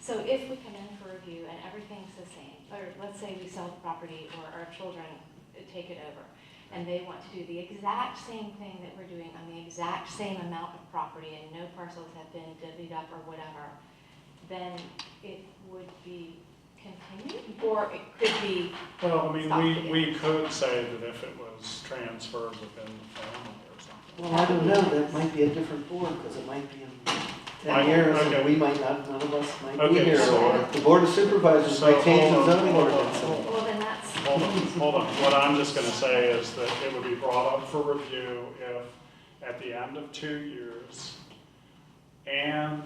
So if we come in for review and everything's the same, or let's say we sell the property or our children take it over, and they want to do the exact same thing that we're doing on the exact same amount of property and no parcels have been divvied up or whatever, then it would be continued, or it could be, Well, I Stop mean, we, it. we could say that if it was transferred within the family or something. Well, I don't know, that might be a different board, because it might be in Right, ten years, okay. and we might not, none of us might be Okay, here. so- uh, The board of supervisors So, might change the hold on, zoning hold on, ordinance. hold well, then that's, Hold on, hold on. What I'm just gonna say is that it would be brought up for review if, at the end of two years, and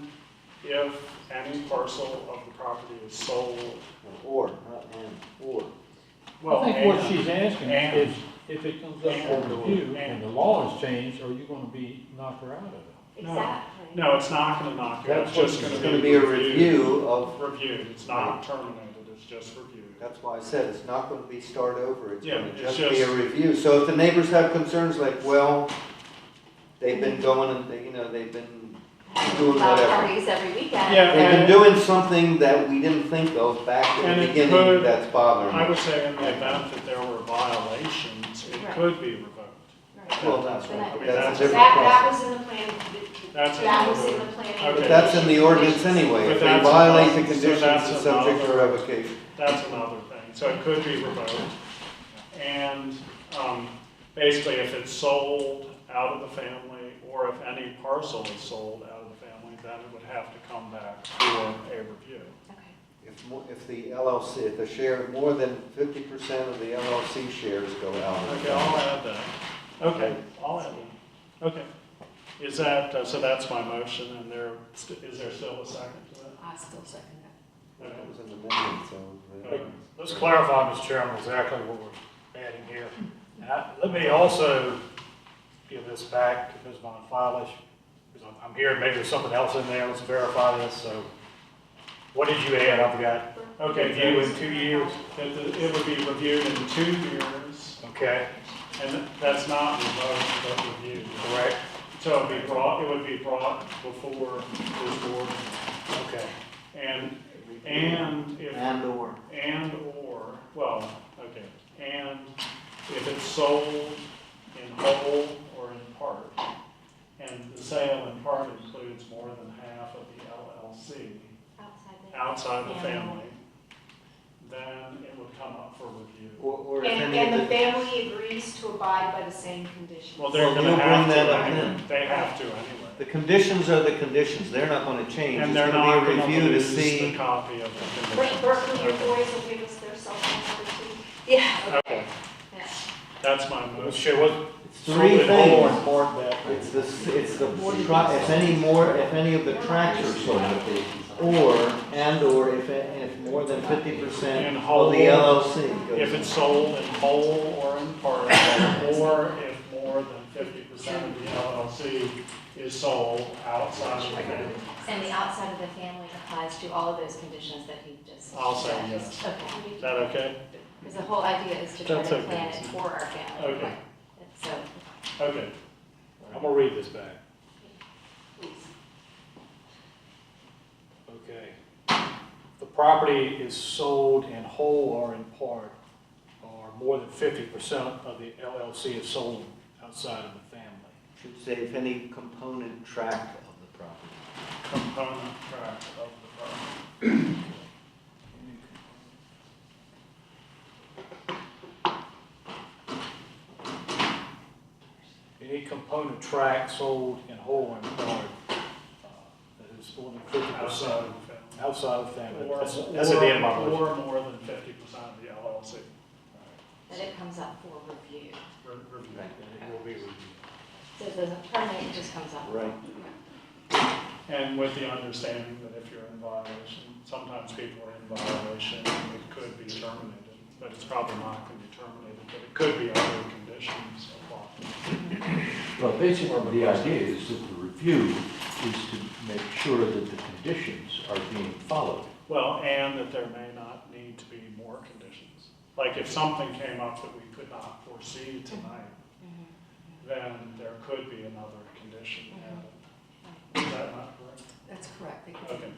if any parcel of the property is sold, Or, not and, or. well, I think what and- she's asking and- is, if it comes up for and- review and and- the law is changed, are you gonna be knocked her out of it? No. exactly. No, it's not gonna knock you out, it's That's what just gonna It's be. gonna be a reviewed. review of, Reviewed, it's not terminated, it's just reviewed. that's why I said, it's not gonna be start over, it's Yeah, gonna it's just be a just- review. So if the neighbors have concerns like, well, they've been going and, they- you know, they've been, Doing Allow whatever. parties every weekend. Yeah, they've been and- doing something that we didn't think of back in And the it could- beginning that's bothering I us. would say in the event that there were violations, it Right. could be revoked. Right. Well, that's Then I- right, but That's- that's That, a different that process. was in the plan, That's that was another- in the planning. Okay. But that's in the ordinance conditions. anyway, But if they that's violate another- the so conditions, that's it's subject to another- revocation. That's another thing, so it could be revoked. And um, basically, if it's sold out of the family, or if any parcel is sold out of the family, then it would have to come back for a review. Okay. If, mo- if the LLC, if the share, more than fifty percent of the LLC shares go out. Okay, I'll add that. Okay, I'll add that. Okay. Is that, uh, so that's my motion, and there, is there still a second to that? I still second that. Okay. That was an amendment, so. uh, Let's clarify, Mr. Chairman, exactly what we're adding here. Now, Let me also give this back to Ms. Von Fleisch, because I'm- I'm here, maybe there's something else in there, let's verify this, so. What did you add, I forgot? Okay, Review in that- two years, that it would be reviewed in two years, okay, and that's not revoked, but reviewed. correct, So it'd be brought, it would be brought before this board, okay. and, and if, And or. and or, well, okay, and if it's sold in whole or in part, and the sale in part includes more than half of the LLC Outside the. outside the family, then it would come up for review. Or, or if And, any and the of the. family agrees to abide by the same conditions. Well, they're Well, gonna we'll have bring to, that up anyway. then. they have to anyway. The conditions are the conditions, they're not gonna change. And It's they're gonna not be a gonna review to lose the see. copy of the Bert- conditions. Berkeley, your Okay. boys will give us their cell phone number too. Yeah. Okay, that's my Let's motion. show what. It's three sold in whole or in things. part that- It's the, it's the, tra- if any more, if any of the tracks are sold, or, and or if, if more than fifty percent And of the whole. LLC goes. If it's sold in whole or in part, or if more than fifty percent of the LLC is sold outside of the family. And the outside of the family applies to all of those conditions that he just. I'll say said. yes. Okay. Is that okay? Because the whole idea is to try That's to okay. plan it for our family. Okay, And So, okay. I'm gonna read this back. please. Okay. The property is sold in whole or in part, or more than fifty percent of the LLC is sold outside of the family. Should say if any component tract of the property. Component tract of the property. Any component tract sold in whole or in part, uh, that is more than fifty Outside percent of the outside of the family. family. That's, that's at the end of my Or- motion. Or more than fifty percent of the LLC. That it comes up for review. Re- review. And it will be reviewed. So it doesn't terminate, it just comes up. Right. And with the understanding that if you're in violation, sometimes people are in violation, it could be terminated, but it's probably not going to be terminated, but it could be other conditions applied. Well, basically, the idea is that the review is to make sure that the conditions are being followed. Well, and that there may not need to be more conditions. Like if something came up that we could not foresee tonight, Mm-hmm. Mhm. then there could be another condition added. Is that not correct? That's correct, Okay.